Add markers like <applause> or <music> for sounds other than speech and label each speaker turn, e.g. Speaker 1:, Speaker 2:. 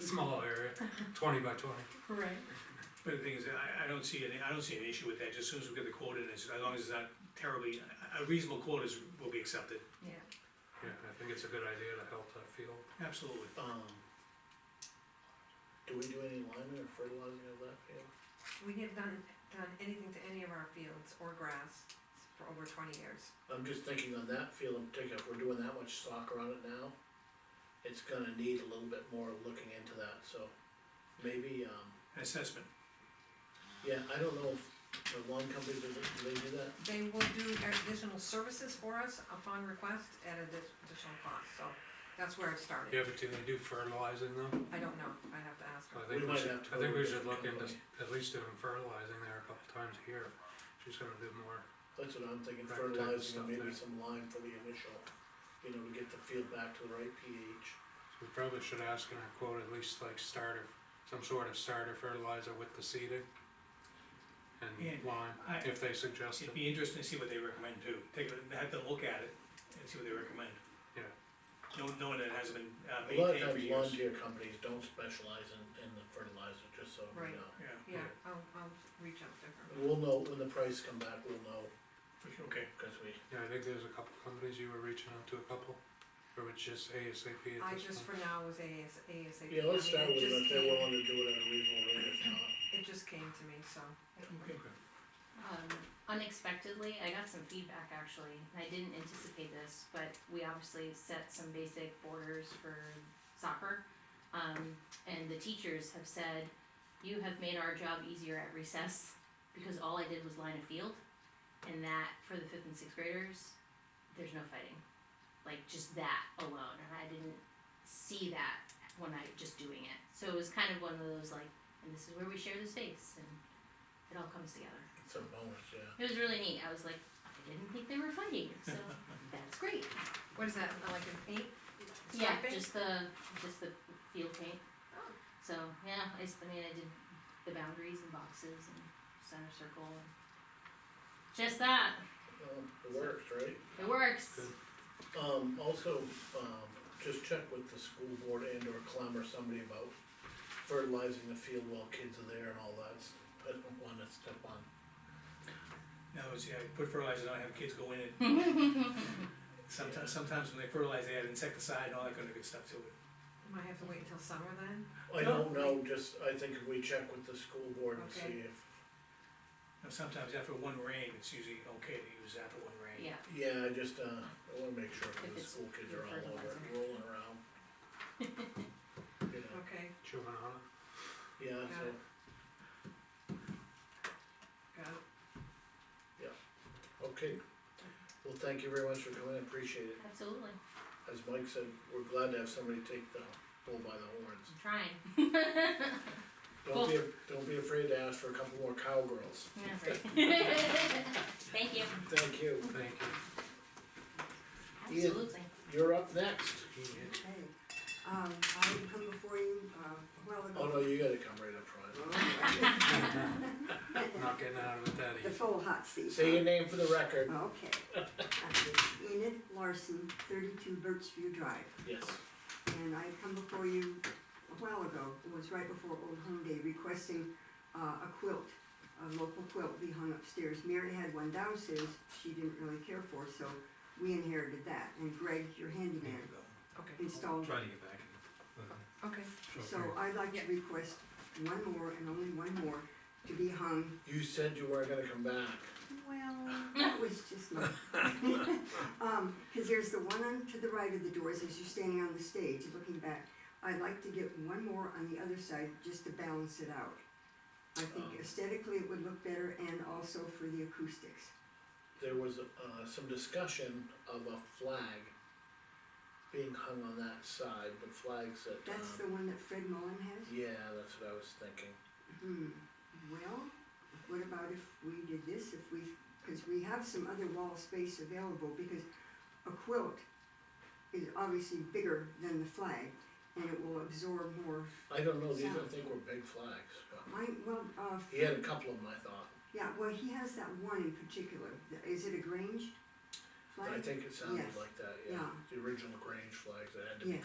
Speaker 1: small area,
Speaker 2: Uh-huh.
Speaker 1: twenty by twenty.
Speaker 2: Right.
Speaker 3: But the thing is, I, I don't see any, I don't see an issue with that, just as soon as we get the quote in, as as long as it's not terribly, a a reasonable quote is, will be accepted,
Speaker 2: Yeah.
Speaker 1: Yeah, I think it's a good idea to help that field.
Speaker 3: absolutely.
Speaker 4: Um, do we do any liming or fertilizing of that field?
Speaker 2: We have done, done anything to any of our fields or grass for over twenty years.
Speaker 4: I'm just thinking on that field in particular, if we're doing that much soccer on it now, it's gonna need a little bit more looking into that, so maybe, um,
Speaker 3: Assessment,
Speaker 4: yeah, I don't know if the lawn company, does it- do they do that?
Speaker 2: They will do additional services for us upon request at an addi- additional cost, so that's where it started.
Speaker 1: Yeah, but do they do fertilizing though?
Speaker 2: I don't know, I'd have to ask her.
Speaker 1: I think
Speaker 4: We
Speaker 1: we
Speaker 4: might
Speaker 1: should,
Speaker 4: have to
Speaker 1: I think
Speaker 4: go
Speaker 1: we
Speaker 4: with
Speaker 1: should look
Speaker 4: different
Speaker 1: into at least doing fertilizing there a couple times a year. She's gonna do more.
Speaker 4: That's what I'm thinking,
Speaker 1: Right, type of
Speaker 4: fertilizing
Speaker 1: stuff
Speaker 4: and maybe
Speaker 1: there.
Speaker 4: some lime for the initial, you know, to get the field back to the right pH.
Speaker 1: So we probably should ask in her quote at least like starter, some sort of starter fertilizer with the seeding. And
Speaker 3: Yeah,
Speaker 1: lime,
Speaker 3: I-
Speaker 1: if they suggest
Speaker 3: it'd
Speaker 1: it.
Speaker 3: be interesting to see what they recommend too, take, a- have to look at it and see what they recommend.
Speaker 1: Yeah.
Speaker 3: No- Knowing that it hasn't been uh,
Speaker 4: A lot of
Speaker 3: maintained for
Speaker 4: times lawn
Speaker 3: years.
Speaker 4: care companies don't specialize in, in the fertilizer, just so we
Speaker 2: Right.
Speaker 4: know.
Speaker 3: Yeah,
Speaker 2: Yeah, I'll, I'll reach out to her.
Speaker 4: We'll know, when the price come back, we'll know,
Speaker 3: for sure, okay,
Speaker 4: cause we,
Speaker 1: Yeah, I think there's a couple companies you were reaching out to, a couple, or it's just ASAP
Speaker 2: I
Speaker 1: at this
Speaker 2: just
Speaker 1: point.
Speaker 2: for now was AS, ASAP.
Speaker 4: Yeah, let's
Speaker 2: I
Speaker 4: start
Speaker 2: mean,
Speaker 4: with
Speaker 2: it
Speaker 4: it,
Speaker 2: just
Speaker 4: if they're
Speaker 2: came-
Speaker 4: willing to do it at a reasonable rate, if not,
Speaker 2: It just came to me, so.
Speaker 3: okay.
Speaker 5: Um, unexpectedly, I got some feedback actually. I didn't anticipate this, but we obviously set some basic borders for soccer. Um, and the teachers have said, you have made our job easier at recess because all I did was line a field. And that for the fifth and sixth graders, there's no fighting. Like just that alone. And I didn't see that when I just doing it. So it was kind of one of those like, and this is where we share the space and it all comes together.
Speaker 4: it's a bonus, yeah.
Speaker 5: It was really neat. I was like, I didn't think they were fighting,
Speaker 1: <laughs>
Speaker 5: so that's great.
Speaker 2: What is that, like an eight?
Speaker 5: Yeah,
Speaker 2: Striping?
Speaker 5: just the just the field paint.
Speaker 2: Oh.
Speaker 5: So yeah, I, s- I mean, I did the boundaries and boxes and center circle and just that.
Speaker 4: Well, it works, right?
Speaker 5: It works.
Speaker 1: Good.
Speaker 4: Um, also, um, just check with the school board and or Clem or somebody about fertilizing the field while kids are there and all that, I don't wanna step on.
Speaker 3: Now, see, I put fertilizer on, I have kids go in and sometimes, sometimes when they fertilize, they add insecticide and all that kind of good stuff to it.
Speaker 2: Might have to wait until summer then?
Speaker 4: I don't know, just, I think if we check with the school board and
Speaker 2: Okay.
Speaker 4: see if,
Speaker 3: Now, sometimes after one rain, it's usually okay to use after one rain.
Speaker 5: Yeah.
Speaker 4: yeah, I just, uh, I wanna make sure,
Speaker 5: If
Speaker 4: cause the
Speaker 5: it's
Speaker 4: school kids are all over it,
Speaker 5: fertilizer.
Speaker 4: rolling around. <laughs> You know,
Speaker 2: Okay,
Speaker 1: Chewing on it.
Speaker 4: yeah, so,
Speaker 2: got it.
Speaker 4: okay. Well, thank you very much for coming, I appreciate it.
Speaker 5: Absolutely.
Speaker 4: as Mike said, we're glad to have somebody take the bull by the horns.
Speaker 5: I'm
Speaker 1: <laughs>
Speaker 5: trying. <laughs>
Speaker 4: Don't be, don't be afraid to ask for a couple more cowgirls.
Speaker 5: Yeah, right. Thank you.
Speaker 4: Thank you.
Speaker 1: Thank you.
Speaker 4: Ian.
Speaker 5: Absolutely.
Speaker 4: You're up next.
Speaker 6: Okay, um, I come before you, uh, a while
Speaker 4: Oh, no,
Speaker 6: ago.
Speaker 4: you gotta come right up front.
Speaker 6: <laughs> Oh, okay.
Speaker 1: Not getting out of it that
Speaker 6: The
Speaker 1: easy.
Speaker 6: full hot seat.
Speaker 4: Say your name for the record.
Speaker 6: Okay. I'm Enid Larson, thirty-two Birchview Drive,
Speaker 4: Yes.
Speaker 6: and I come before you a while ago, it was right before Old Home Day, requesting, uh, a quilt, a local quilt be hung upstairs. Mary had one downstairs she didn't really care for, so we inherited that, and Greg, your handyman,
Speaker 2: Okay,
Speaker 6: installed it.
Speaker 7: Try to get back. Uh,
Speaker 2: okay.
Speaker 6: So I'd like to request one more and only one more to be hung,
Speaker 4: You said you weren't gonna come back.
Speaker 6: well, that was just my. <laughs> Um, cause there's the one on to the right of the doors as you're standing on the stage looking back. I'd like to get one more on the other side just to balance it out. I
Speaker 4: Um.
Speaker 6: think aesthetically it would look better and also for the acoustics.
Speaker 4: There was, uh, some discussion of a flag being hung on that side, the flags that, um,
Speaker 6: That's the one that Fred Mullen has?
Speaker 4: yeah, that's what I was thinking.
Speaker 6: Hmm, well, what about if we did this, if we, cause we have some other wall space available, because a quilt is obviously bigger than the flag, and it will absorb more,
Speaker 4: I don't know, these I
Speaker 6: Sound.
Speaker 4: think were big flags.
Speaker 6: I, well, uh,
Speaker 4: He had a couple of them, I thought.
Speaker 6: yeah, well, he has that one in particular, Th- is it a Grange flag?
Speaker 4: I think it sounded
Speaker 6: Yes.
Speaker 4: like that, yeah,
Speaker 6: Yeah.
Speaker 4: the original Grange flags that had to be
Speaker 6: Yes.